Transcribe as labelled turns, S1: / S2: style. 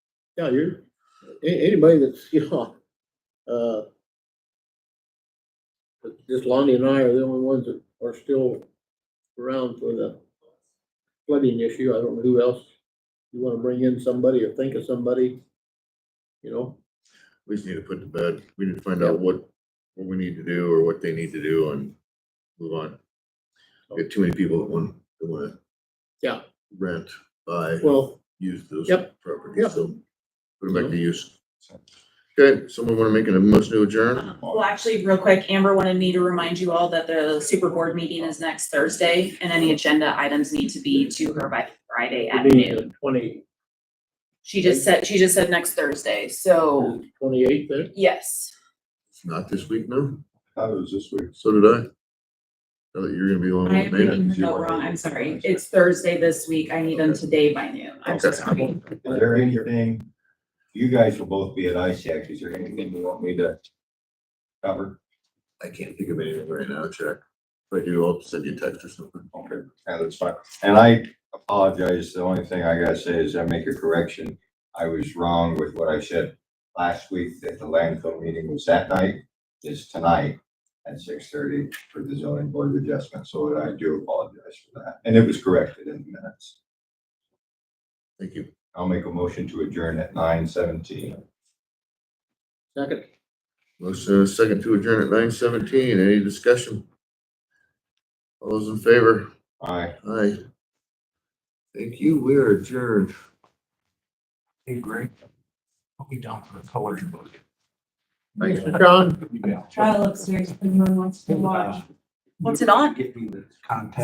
S1: Yeah, you're, a- anybody that's, you know, uh, but just Lonnie and I are the only ones that are still around for the flooding issue. I don't know who else. You wanna bring in somebody or think of somebody, you know?
S2: We just need to put to bed, we need to find out what, what we need to do or what they need to do and move on. We got too many people that want, that wanna.
S1: Yeah.
S2: Rent, buy,
S1: Well,
S2: use those
S1: Yep. Yep.
S2: properties, so put them back to use. Okay, someone wanna make a motion to adjourn?
S3: Well, actually, real quick, Amber wanted me to remind you all that the super board meeting is next Thursday and any agenda items need to be to her by Friday at noon.
S1: twenty,
S3: She just said, she just said next Thursday, so
S1: twenty-eighth eh? there?
S3: yes.
S2: It's Not this week, no,
S4: How was this week?
S2: so did I. Now that you're gonna be the one
S3: I
S2: that
S3: am
S2: made
S3: reading the
S2: it.
S3: note wrong, I'm sorry. It's Thursday this week. I need them today by noon. I'm so
S2: Okay.
S3: sorry.
S4: Is there anything, you guys will both be at ISAC, is there anything you want me to cover?
S2: I can't think of anything right now, check. If I do, I'll send you a text or something.
S4: Okay, yeah, that's fine. And I apologize, the only thing I gotta say is I make a correction. I was wrong with what I said last week, that the landfill meeting was that night, is tonight at six thirty for the zoning board of adjustment, so I do apologize for that. And it was corrected in the minutes.
S2: Thank you.
S4: I'll make a motion to adjourn at nine seventeen.
S1: Second,
S2: Motion and a second to adjourn at nine seventeen. Any discussion? All those in favor?
S4: Aye.
S2: Aye. Thank you. We are adjourned.
S5: Hey, Greg, put me down for a color book.
S1: thanks, John.
S3: Trial upstairs, if anyone wants to watch. What's it on?
S5: Get me the contact.